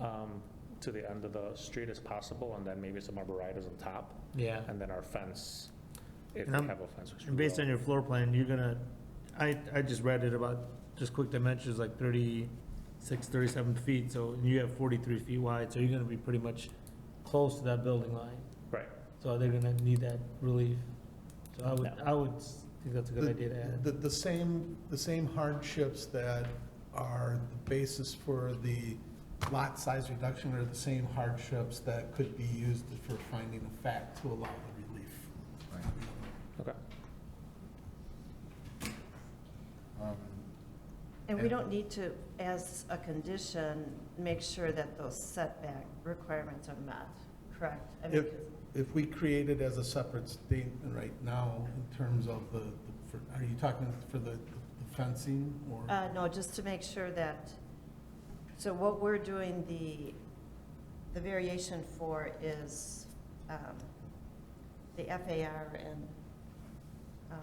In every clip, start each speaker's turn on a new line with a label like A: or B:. A: um, to the end of the street as possible, and then maybe some arborvitae's on top,
B: Yeah.
A: and then our fence, if we
B: And I'm-
A: have a fence, which we
B: And Um, based
A: will.
B: on your floor plan, you're gonna, I, I just read it about, just quick dimensions, like 36, 37 feet, so and you have 43 feet wide, so you're gonna be pretty much close to that building line.
A: Right.
B: So they're gonna need that relief. So I would,
A: No.
B: I would s- think that's a good
C: The-
B: idea to add.
C: The, the same, the same hardships that are the basis for the lot size reduction are the same hardships that could be used for finding a fact to allow the relief.
A: Okay.
D: And we don't need to, as a condition, make sure that those setback requirements are met, correct? I mean,
C: If- If we create it as a separate statement right now in terms of the, the- for- are you talking for the the fencing or?
D: 'cause, uh, no, just to make sure that, so what we're doing, the, the variation for is, um, the FAR and, um,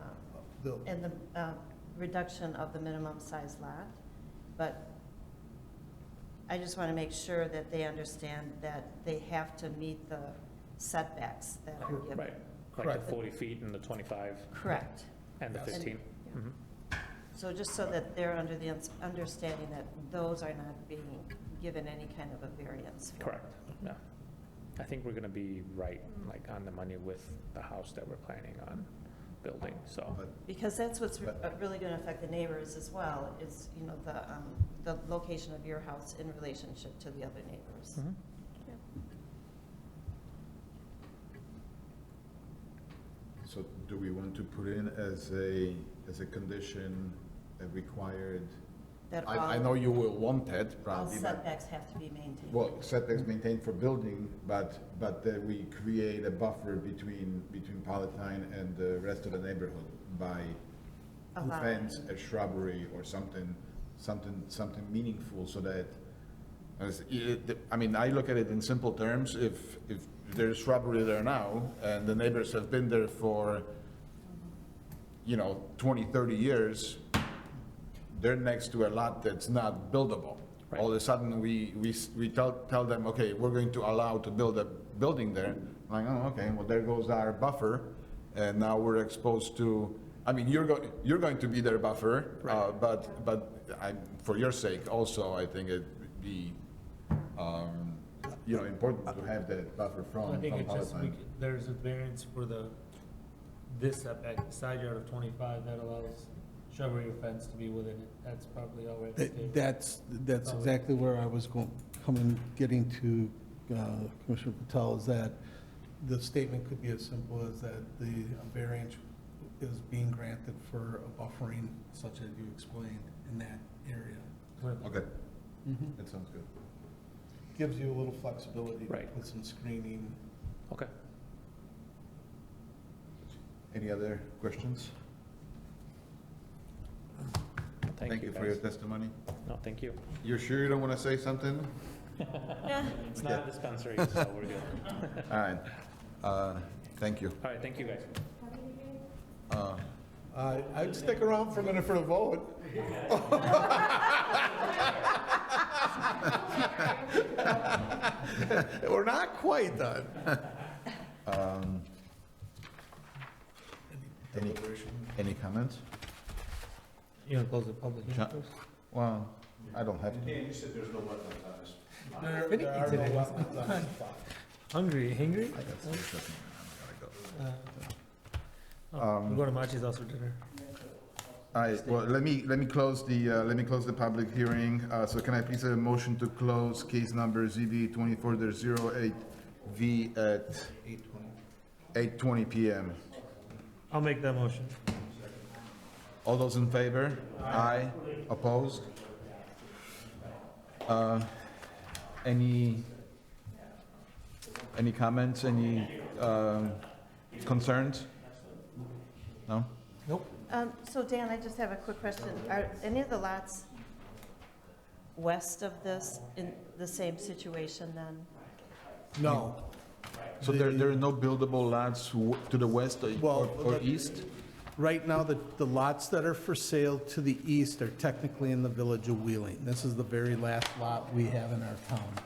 C: the-
D: and the, uh, reduction of the minimum size lot. But I just want to make sure that they understand that they have to meet the setbacks that are given.
A: Right, like
C: Correct.
A: the 40 feet and the 25
D: Correct.
A: and the
C: Yes.
A: 15.
D: Yeah.
A: Mhm.
D: So just so that they're under the uns- understanding that those are not being given any kind of a variance. for.
A: Correct, yeah. I think we're going to be right, like on the money with the house that we're planning on building, so.
D: Because that's what's re-
C: But-
D: uh, really going to affect the neighbors as well, is, you know, the, um, the location of your house in relationship to the other neighbors.
A: Mhm.
E: So do we want to put in as a, as a condition a required?
D: That all,
E: I, I know you will want it,
D: all
E: probably, but,
D: setbacks have to be maintained.
E: well, setbacks maintained for building, but, but that we create a buffer between, between Palatine and the rest of the neighborhood by a
D: Allowing.
E: fence, a shrubbery, or something, something, something meaningful, so that, as, it- I mean, I look at it in simple terms, if, if there's shrubbery there now, and the neighbors have been there for, you know, 20, 30 years, they're next to a lot that's not buildable. All of a sudden, we, we, s- we tell, tell them, okay, we're going to allow to build a building there. Like, oh, okay, well, there goes our buffer, and now we're exposed to, I mean, you're going, you're going to be their buffer, uh, but, but I, for your sake also, I think it'd be, um, you know, important to have that buffer
B: I
E: from,
B: think
E: from
B: it's just, we
E: Palatine.
B: could- there's a variance for the, this setback, the side yard of 25, that allows shrubbery or fence to be within it. That's probably all right.
C: That-
B: Dave.
C: That's, that's exactly where I was going, coming, getting to uh, Commissioner Patel, is that the statement could be as simple as that the variance is being granted for a buffering such as you explained in that area.
B: With-
E: Okay, that sounds good.
C: Gives you a little flexibility to
A: Right.
C: put some screening.
A: Okay,
E: Any other questions?
A: thank you
E: for your
A: guys.
E: testimony.
A: No, thank you.
E: You're sure you don't want to say something?
A: It's not a
E: Okay.
A: dispensary, so we're good.
E: All right, Uh, thank you.
A: All right, thank you, guys.
E: Uh,
C: Uh, I'd stick around for a minute for the vote. We're not quite done.
E: Um, Any any comments?
B: You gonna close the public hearing
E: Chuck?
B: first?
E: Well, I don't have to.
F: you said there's no wetlands on this.
C: There there are no weapons on the spot.
B: Hungry, hungry?
E: I got some stuff in
B: Uh, oh, We're going to Machi's house for dinner.
E: All right, well, let me, let me close the, uh, let me close the public hearing. Uh, So can I please have a motion to close case number ZB 24-08V at 8:20 PM?
B: I'll make that motion.
E: All those in favor? Aye. Opposed? Uh, Any, any comments, any um, concerns? No?
B: Nope.
D: Um, so Dan, I just have a quick question. Are any of the lots west of this in the same situation then?
C: No.
E: So there, there are no buildable lots w- to the west or- or
C: Well,
E: or
C: the-
E: east?
C: Right now, the, the lots that are for sale to the east are technically in the village of Wheeling. This is the very last lot we have in our town.